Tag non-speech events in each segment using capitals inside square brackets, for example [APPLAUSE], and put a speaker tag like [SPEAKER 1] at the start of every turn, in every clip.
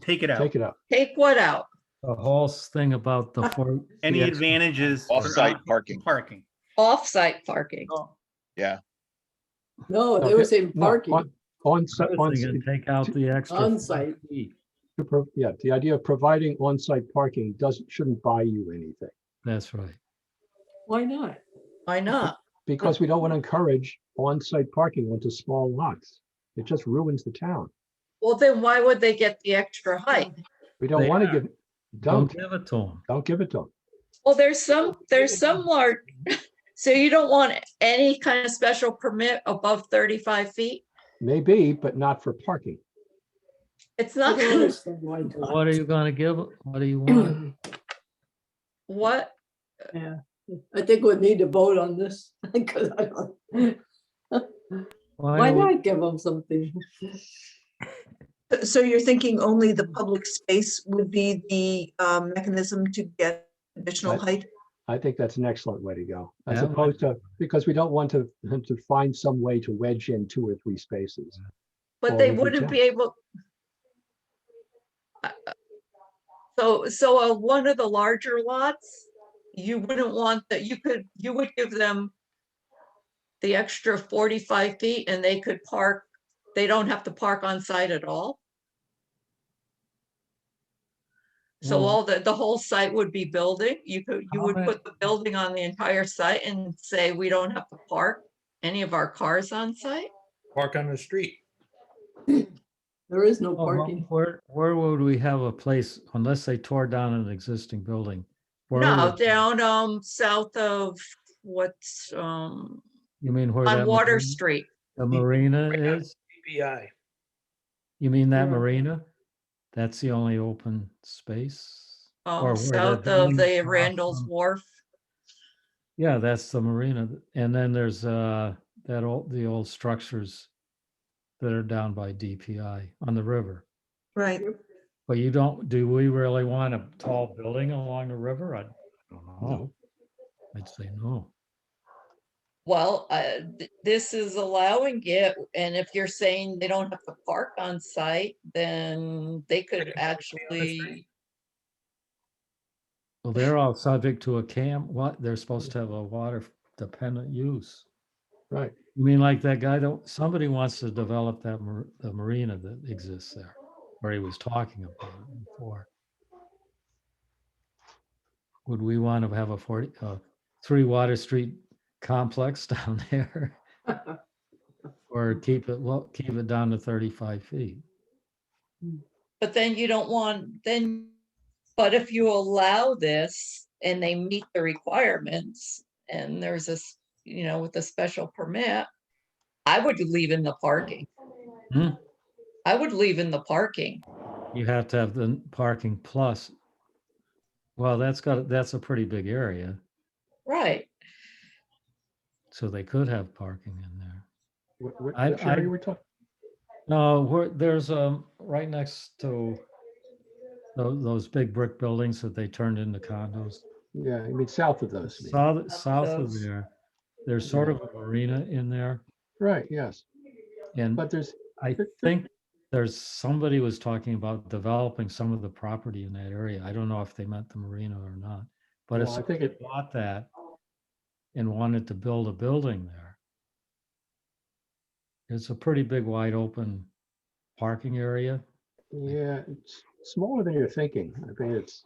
[SPEAKER 1] Take it out.
[SPEAKER 2] Take it out.
[SPEAKER 3] Take what out?
[SPEAKER 4] The whole thing about the four.
[SPEAKER 1] Any
[SPEAKER 4] the extra- [LAUGHS]
[SPEAKER 1] advantages? for
[SPEAKER 5] Off-site
[SPEAKER 1] on-
[SPEAKER 5] parking.
[SPEAKER 1] Parking.
[SPEAKER 3] Off-site parking.
[SPEAKER 6] No, Oh, they
[SPEAKER 2] Okay. [LAUGHS]
[SPEAKER 6] were saying
[SPEAKER 2] No,
[SPEAKER 6] parking,
[SPEAKER 2] on- On,
[SPEAKER 4] Other thing and Take out the extra.
[SPEAKER 6] on-site.
[SPEAKER 2] yeah, the idea of providing on-site parking doesn't, shouldn't buy you anything.
[SPEAKER 4] That's right.
[SPEAKER 6] Why not?
[SPEAKER 3] Why not?
[SPEAKER 2] Because we don't want to encourage on-site parking onto small lots. It just ruins the town.
[SPEAKER 3] Well, then why would they get the extra height?
[SPEAKER 2] We don't
[SPEAKER 4] They
[SPEAKER 2] want to
[SPEAKER 4] are.
[SPEAKER 2] give,
[SPEAKER 4] Don't
[SPEAKER 2] don't,
[SPEAKER 4] give it to them.
[SPEAKER 2] don't give it to them.
[SPEAKER 3] Well, there's some, there's some large, [LAUGHS] so you don't want any kind of special permit above thirty-five feet?
[SPEAKER 2] Maybe, but not for parking.
[SPEAKER 3] It's
[SPEAKER 6] I
[SPEAKER 3] not,
[SPEAKER 6] don't
[SPEAKER 3] gonna
[SPEAKER 6] understand why not.
[SPEAKER 4] What are you gonna give? 'em? What do you
[SPEAKER 6] [CLEARS THROAT]
[SPEAKER 4] want?
[SPEAKER 3] [LAUGHS] what,
[SPEAKER 6] I think we'd need to vote on this, [LAUGHS] 'cause I don't, why
[SPEAKER 4] do we-
[SPEAKER 6] not give them something?
[SPEAKER 7] So you're thinking only the public space would be the um, mechanism to get additional
[SPEAKER 2] Right.
[SPEAKER 7] height?
[SPEAKER 2] I think that's an excellent way to go, as
[SPEAKER 4] Yeah, I like
[SPEAKER 2] opposed to, because we don't want to, [LAUGHS] them to find some way to wedge in two or three spaces.
[SPEAKER 3] but
[SPEAKER 2] Well,
[SPEAKER 3] they
[SPEAKER 2] we could
[SPEAKER 3] wouldn't
[SPEAKER 2] check.
[SPEAKER 3] be able. uh, So, so on one of the larger lots, you wouldn't want that, you could, you would give them the extra forty-five feet and they could park, they don't have to park on site at all? So
[SPEAKER 4] Well-
[SPEAKER 3] all the, the whole site would be building, you could, you
[SPEAKER 4] How
[SPEAKER 3] would
[SPEAKER 4] about-
[SPEAKER 3] put the building on the entire site and say, we don't have to park any of our cars on site?
[SPEAKER 8] Park on the street.
[SPEAKER 6] There is no
[SPEAKER 4] Oh, Well,
[SPEAKER 6] parking.
[SPEAKER 4] Where, where would we have a place unless they tore down an existing building? Where
[SPEAKER 3] No,
[SPEAKER 4] would-
[SPEAKER 3] down, um, south of what's, um,
[SPEAKER 4] You mean where?
[SPEAKER 3] on
[SPEAKER 4] that
[SPEAKER 3] Water
[SPEAKER 4] marina-
[SPEAKER 3] Street.
[SPEAKER 4] The marina
[SPEAKER 8] Right on
[SPEAKER 4] is?
[SPEAKER 8] CBI.
[SPEAKER 4] You mean that
[SPEAKER 6] Yeah.
[SPEAKER 4] marina? That's the only open space? Or
[SPEAKER 3] Um,
[SPEAKER 4] where
[SPEAKER 3] south
[SPEAKER 4] the
[SPEAKER 3] of
[SPEAKER 4] buildings
[SPEAKER 3] the
[SPEAKER 4] are
[SPEAKER 3] Randall's
[SPEAKER 4] from.
[SPEAKER 3] Wharf.
[SPEAKER 4] Yeah, that's the marina. th- And then there's uh, that old, the old structures that are down by DPI on the river.
[SPEAKER 7] Right.
[SPEAKER 4] But you don't, do we really want a tall building along the river? I don't know. I'd say no.
[SPEAKER 3] Well, uh, th- this is allowing it, and if you're saying they don't have to park on site, then they could
[SPEAKER 8] can park on the street.
[SPEAKER 3] actually.
[SPEAKER 4] Well, they're all subject to a cam, what, they're supposed to have a water dependent use.
[SPEAKER 2] Right.
[SPEAKER 4] You mean like that guy, don't, somebody wants to develop that mar- the marina that exists there, where he was talking about it before. Would we want to have a forty, uh, three Water Street complex [LAUGHS] down there?
[SPEAKER 6] [LAUGHS]
[SPEAKER 4] Or keep it, well, keep it down to thirty-five feet?
[SPEAKER 3] But then you don't want, then, but if you allow this and they meet the requirements and there's this, you know, with a special permit, I would leave in the parking.
[SPEAKER 4] Hmm.
[SPEAKER 3] I would leave in the parking.
[SPEAKER 4] You have to have the parking plus. Well, that's got, that's a pretty big area,
[SPEAKER 3] Right.
[SPEAKER 4] so they could have parking in there.
[SPEAKER 2] What, what
[SPEAKER 4] I-
[SPEAKER 2] which
[SPEAKER 4] I-
[SPEAKER 2] area we're talking?
[SPEAKER 4] No, where, there's, um, right next to those, those big brick buildings that they turned into condos.
[SPEAKER 2] Yeah, I mean, south of those. I mean.
[SPEAKER 4] South, south of
[SPEAKER 3] those.
[SPEAKER 4] there, there's sort of a marina in there.
[SPEAKER 2] Right, yes.
[SPEAKER 4] And
[SPEAKER 2] But there's,
[SPEAKER 4] I
[SPEAKER 2] there-
[SPEAKER 4] think there's, somebody was talking about developing some of the property in that area. I don't know if they meant the marina or not. But if
[SPEAKER 2] Well, I think
[SPEAKER 4] somebody
[SPEAKER 2] it-
[SPEAKER 4] bought that and wanted to build a building there, it's a pretty big wide open parking area.
[SPEAKER 2] yeah, it's smaller than you're thinking. I mean, it's,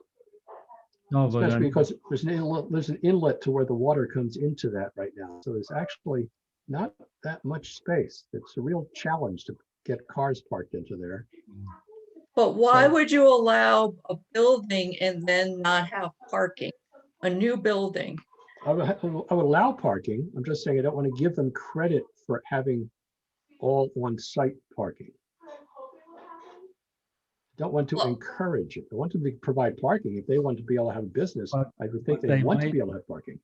[SPEAKER 4] No, but.
[SPEAKER 2] especially
[SPEAKER 4] I'm-
[SPEAKER 2] because there's an inlet, there's an inlet to where the water comes into that right now. So there's actually not that much space. It's a real challenge to get cars parked into there.
[SPEAKER 3] But why
[SPEAKER 2] So-
[SPEAKER 3] would you allow a building and then not have parking? A new building?
[SPEAKER 2] I would, ha- I would allow parking. I'm just saying I don't want to give them credit for having all on-site parking. Don't want to
[SPEAKER 3] Well-
[SPEAKER 2] encourage it. I want to be, provide parking. If they want to be able to have a business, I
[SPEAKER 4] But-
[SPEAKER 2] would think
[SPEAKER 4] but
[SPEAKER 2] they
[SPEAKER 4] they
[SPEAKER 2] want to
[SPEAKER 4] might-
[SPEAKER 2] be able to have parking.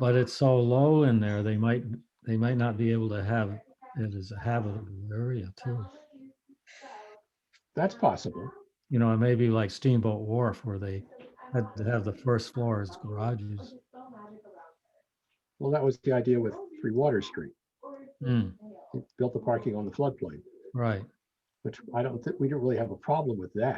[SPEAKER 4] But it's so low in there, they might, they might not be able to have it as a habitable area too.
[SPEAKER 2] That's possible.
[SPEAKER 4] You know, it may be like Steamboat Wharf where they had to have the first floor as garages.
[SPEAKER 2] Well, that was the idea with Three Water Street.
[SPEAKER 4] Hmm,
[SPEAKER 2] It Built the parking on the floodplain,
[SPEAKER 4] right.
[SPEAKER 2] which I don't think, we don't really have a problem with that.